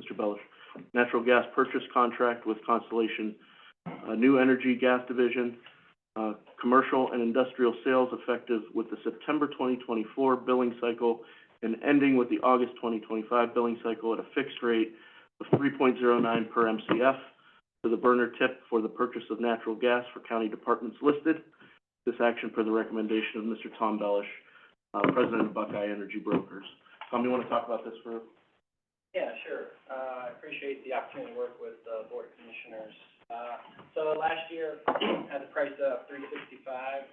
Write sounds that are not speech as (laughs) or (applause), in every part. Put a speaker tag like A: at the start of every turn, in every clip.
A: Mr. Bellish. Natural gas purchase contract with Constellation, uh, New Energy Gas Division, uh, commercial and industrial sales effective with the September twenty twenty-four billing cycle and ending with the August twenty twenty-five billing cycle at a fixed rate of three point zero nine per MCF to the burner tip for the purchase of natural gas for county departments listed. This action per the recommendation of Mr. Tom Bellish, uh, President of Buckeye Energy Brokers. Tom, you wanna talk about this for
B: Yeah, sure. Uh, I appreciate the opportunity to work with the Board of Commissioners. Uh, so last year, (clears throat) had a price of three sixty-five.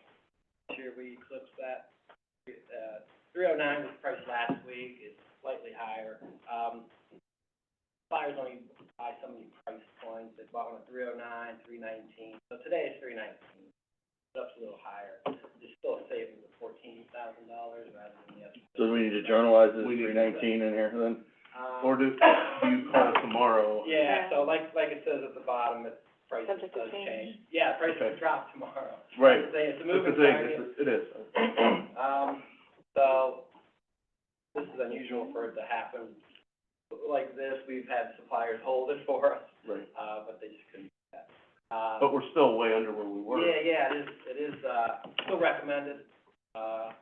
B: This year, we eclipsed that. Uh, three oh nine was the price last week, it's slightly higher. Um, buyers only buy so many price points, they bought one at three oh nine, three nineteen, so today it's three nineteen. It's up a little higher. It's still a savings of fourteen thousand dollars rather than the other.
C: So we need to journalize this
A: We need to
C: three
A: do
C: nineteen in here then?
B: Um,
A: Or do, do you call tomorrow?
B: Yeah,
D: Yeah.
B: so like, like it says at the bottom, it, prices
D: Subject to
B: does change.
D: change.
B: Yeah, prices
A: Okay.
B: drop tomorrow.
C: Right.
B: It's a, it's a
A: That's the
B: moving
A: thing,
B: target.
A: it's- it is.
B: Um, so, this is unusual for it to happen like this. We've had suppliers hold it (laughs) for us,
A: Right.
B: uh, but they just couldn't do that. Uh,
A: But we're still way under where we were.
B: Yeah, yeah, it is, it is, uh, still recommended, uh,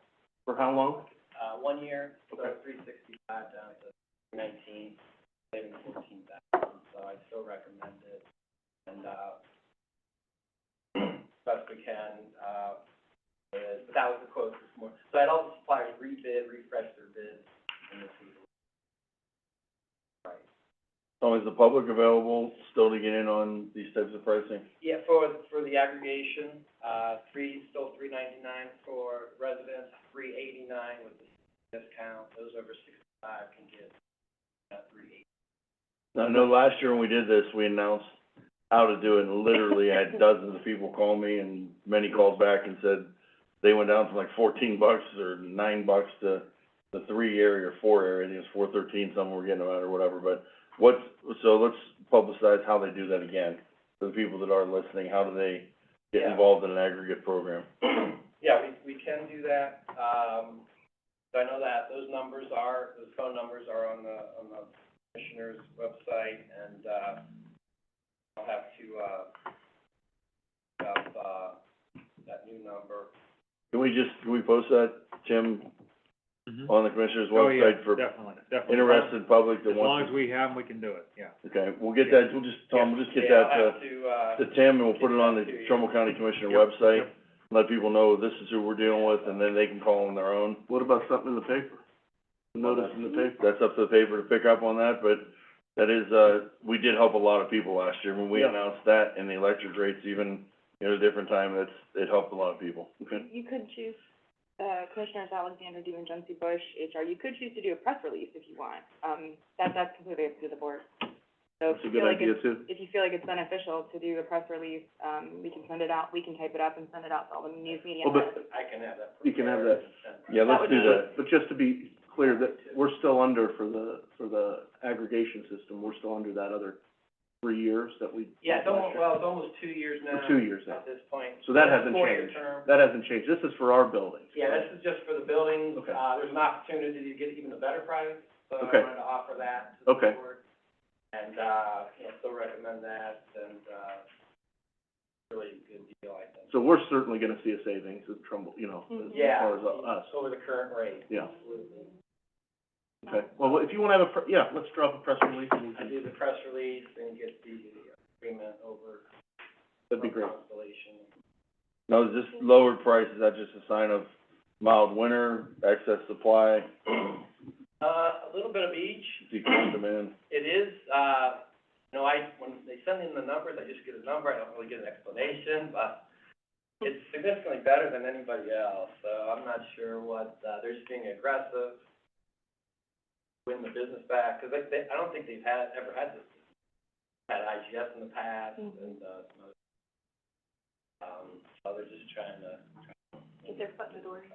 A: For how long?
B: uh, one year, so
A: Okay.
B: three sixty-five down to nineteen, saving fourteen thousand, so I still recommend it. And, uh, (clears throat) best we can, uh, uh, but that was the quote this morning. So I had all the suppliers rebid, refresh their bids, and this was. Right.
C: So is the public available still to get in on these types of pricing?
B: Yeah, for, for the aggregation, uh, three, still three ninety-nine for residents, three eighty-nine with the discount, those over sixty-five can get, uh, three eighty.
C: I know last year when we did this, we announced how to do it, and literally I had dozens of people call me, and many called back and said they went down from like fourteen bucks or nine bucks to the three area or four area, I think it's four thirteen, some were getting them out or whatever, but what's, so let's publicize how they do that again. For the people that are listening, how do they get
B: Yeah.
C: involved in an aggregate program?
B: Yeah, we, we can do that, um, so I know that those numbers are, those phone numbers are on the, on the commissioner's website, and, uh, I'll have to, uh, have, uh, that new number.
C: Can we just, can we post that, Tim, on the commissioner's website for
E: Definitely, definitely.
C: interested public
E: Oh,
C: that
E: As
C: wants
E: long as we have 'em, we can do it, yeah.
C: to? Okay, we'll get that, we'll just, Tom, we'll just get that
B: Yeah,
C: to,
B: I'll have to, uh,
C: to Tim, and we'll put it on the
B: Get that to you.
C: Trumbull County Commissioner
E: Yep,
C: website.
E: yep.
C: Let people know this is who we're dealing with, and then they can call on their own.
A: What about something in the paper? A Notice in the paper?
C: That's up to the paper to pick up on that, but that is, uh, we did help a lot of people last year. When we
A: Yeah.
C: announced that and the electric rates even, you know, a different time, that's, it helped a lot of people.
A: Okay.
D: You could choose, uh, Commissioners Alexander, DeMongensi, Bush, HR, you could choose to do a press release if you want. Um, that, that's completely up to the board. So if
A: That's a
D: you
A: good
D: feel like
A: idea
D: it's,
A: too.
D: if you feel like it's beneficial to do a press release, um, we can send it out, we can type it up and send it out to all the news media.
A: Well, Oh, but,
B: I can have that.
A: You can have
B: prepared
A: that.
B: and sent.
C: Yeah,
D: That
C: let's
D: would
C: do
D: be-
C: that.
A: but just to be clear, that we're still under for the, for the aggregation system, we're still under that other three years that we.
B: Yeah, it's almost,
A: Sure.
B: well, it's almost two years now.
A: For two years now.
B: At this point.
A: So that hasn't
B: Four-year
A: changed.
B: term.
A: That hasn't changed, this is for our buildings.
B: Yeah, this is just for the buildings.
A: Okay.
B: Uh, there's an opportunity to get even a better price, so I
A: Okay.
B: wanted to offer that to the
A: Okay.
B: board. And, uh, you know, still recommend that, and, uh, really good deal, I think.
A: So we're certainly gonna see a savings in Trumbull, you know, as as
D: Mm-hmm.
B: Yeah.
A: far as uh, us,
B: Over the current rate.
A: Yeah.
B: Absolutely.
A: okay? Well, if you wanna have a, pre- yeah, let's drop a press release and we
B: I
A: can,
B: do the press release and get the agreement over.
A: that'd be
B: from
A: great.
B: Constellation.
C: No, is this lower price, is that just a sign of mild winter, excess supply,
B: Uh, a little bit of each.
C: decreased demand?
B: It is, uh, you know, I, when they send in the numbers, I just get a number, I don't really get an explanation, but it's significantly better than anybody else, so I'm not sure what, uh, they're just being aggressive, win the business back, 'cause they, they, I don't think they've had, ever had this, had IGS in the past
D: Mhm.
B: and, uh, some other- um, so they're just trying to.
D: Get their foot in the door.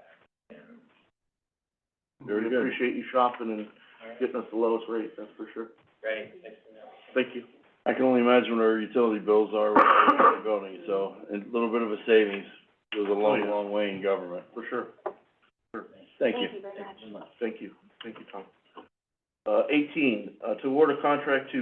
C: Very
A: We
C: good.
A: Appreciate you shopping and
B: All right,
A: getting us the lowest rate, that's for sure.
B: great, thanks for that.
A: Thank you.
C: I can only imagine what our utility bills are with our (coughs) building, so a little bit of a savings goes a
A: Oh,
C: long,
A: yeah.
C: long way in government.
A: For sure.
C: Thank you.
D: very much.
A: Thank you. Thank you, Tom. Uh, eighteen, uh, to award a contract to